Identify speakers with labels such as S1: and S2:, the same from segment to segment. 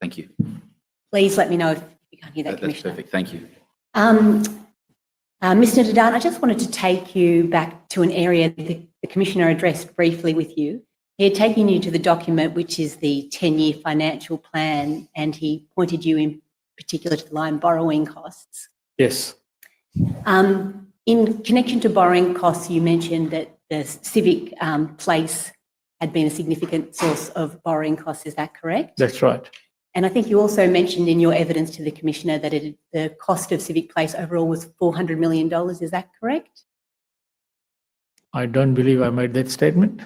S1: Thank you.
S2: Please let me know if you can't hear that,
S1: That- That's
S2: Commissioner.
S1: perfect. Thank you.
S2: Um, uh, Mr. Dadan, I just wanted to take you back to an area that the the Commissioner addressed briefly with you. He had taken you to the document, which is the 10-year financial plan, and he pointed you in particular to the line borrowing costs.
S3: Yes,
S2: Um, in connection to borrowing costs, you mentioned that the civic um, place had been a significant source of borrowing costs. Is that correct?
S3: that's right.
S2: And I think you also mentioned in your evidence to the Commissioner that it, the cost of Civic Place overall was $400 million. Is that correct?
S3: I don't believe I made that statement.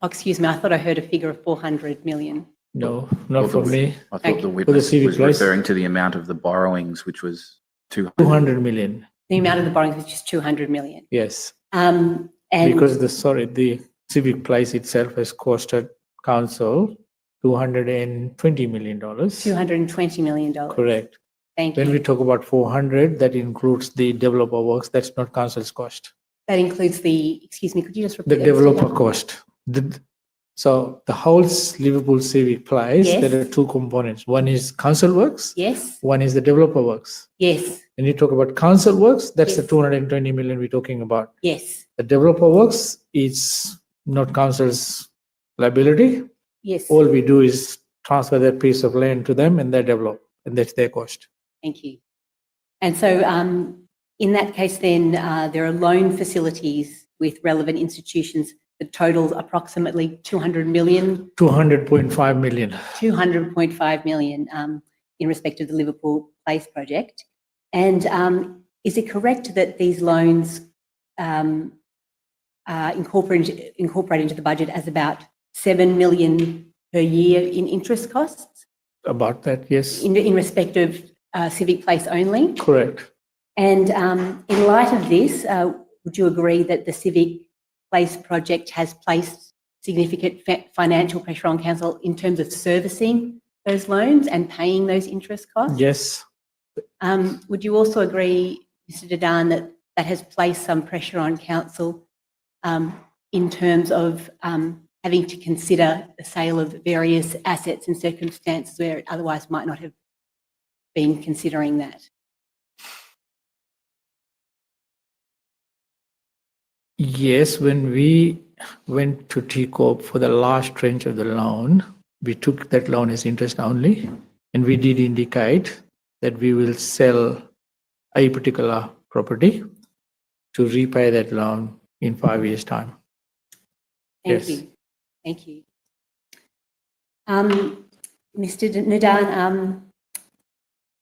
S2: Oh, excuse me, I thought I heard a figure of 400 million.
S3: No, not for me.
S1: I thought the
S2: Thank
S3: For the
S1: witness
S3: civic
S1: was
S3: place.
S1: referring to the amount of the borrowings, which was 200.
S3: 200 million.
S2: The amount of the borrowings was just 200 million.
S3: Yes,
S2: Um, and
S3: because the, sorry, the civic place itself has costed council 220 million dollars.
S2: 220 million dollars.
S3: Correct.
S2: Thank
S3: When
S2: you.
S3: we talk about 400, that includes the developer works. That's not council's cost.
S2: that includes the, excuse me, could you just repeat
S3: The
S2: that, Mr.
S3: developer
S2: Dunn?
S3: cost. The- So the whole Liverpool civic place,
S2: Yes.
S3: there are two components. One is council works,
S2: Yes,
S3: one is the developer works.
S2: yes,
S3: When you talk about council works, that's the
S2: Yes.
S3: 220 million we're talking about.
S2: yes,
S3: The developer works is not council's liability.
S2: yes.
S3: All we do is transfer that piece of land to them and they develop, and that's their cost.
S2: Thank you. And so um, in that case, then uh, there are loan facilities with relevant institutions that total approximately 200 million,
S3: 200.5 million.
S2: 200.5 million um, in respect of the Liverpool Place project. And um, is it correct that these loans um, are incorporated, incorporated into the budget as about 7 million per year in interest costs
S3: About that, yes,
S2: in, in respect of uh, Civic Place only?
S3: correct.
S2: And um, in light of this, uh, would you agree that the Civic Place project has placed significant fa- financial pressure on council in terms of servicing those loans and paying those interest costs?
S3: Yes,
S2: Um, would you also agree, Mr. Dadan, that that has placed some pressure on council um, in terms of um, having to consider the sale of various assets in circumstances where it otherwise might not have been considering that?
S3: yes, when we went to TCOP for the last tranche of the loan, we took that loan as interest only, and we did indicate that we will sell a particular property to repay that loan in five years' time.
S2: Thank
S3: Yes.
S2: you. Thank you. Um, Mr. Nadan, um,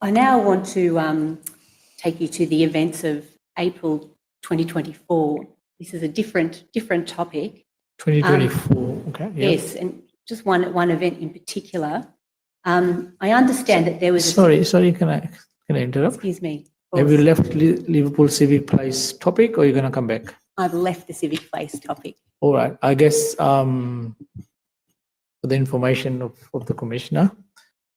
S2: I now want to um, take you to the events of April 2024. This is a different, different topic.
S3: 2024, okay? yeah.
S2: Yes, and just one, one event in particular. Um, I understand that there was, a-
S3: Sorry, sorry, can I, can I interrupt?
S2: excuse me, of
S3: Have you
S2: course,
S3: left Li- Liverpool Civic Place topic, or you're gonna come back?
S2: I've left the civic place topic.
S3: All right, I guess, um, for the information of, of the commissioner,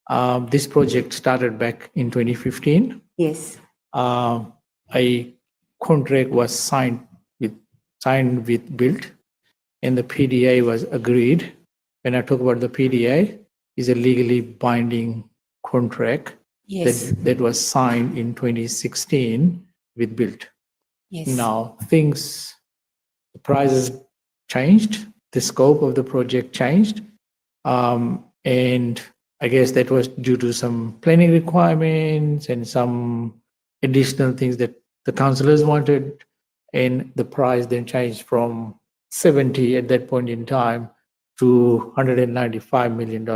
S3: um, this project started back in 2015.
S2: Yes,
S3: Um, a contract was signed with, signed with Built, and the PDA was agreed. When I talk about the PDA, is a legally binding contract
S2: yes,
S3: that, that was signed in 2016 with Built.
S2: yes.
S3: Now, things, the prices changed, the scope of the project changed. Um, and I guess that was due to some planning requirements and some additional things that the councillors wanted. And the price then changed from 70 at that point in time to $195 million.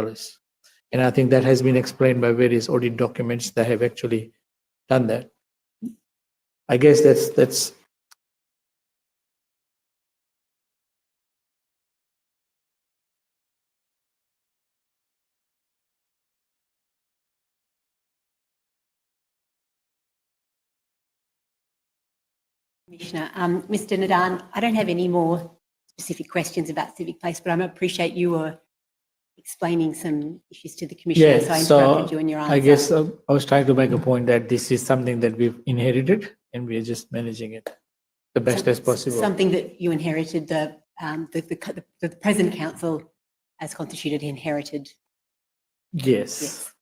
S3: And I think that has been explained by various audit documents that have actually done that. I guess that's, that's
S2: Commissioner. Um, Mr. Nadan, I don't have any more specific questions about Civic Place, but I appreciate you were explaining some issues to the Commissioner, so I
S3: Yeah, so
S2: interrupted you in your answer.
S3: I guess uh, I was trying to make a point that this is something that we've inherited and we are just managing it the best as possible.
S2: Something that you inherited, the, um, the, the, the present council as constituted inherited,
S3: Yes,
S2: yes.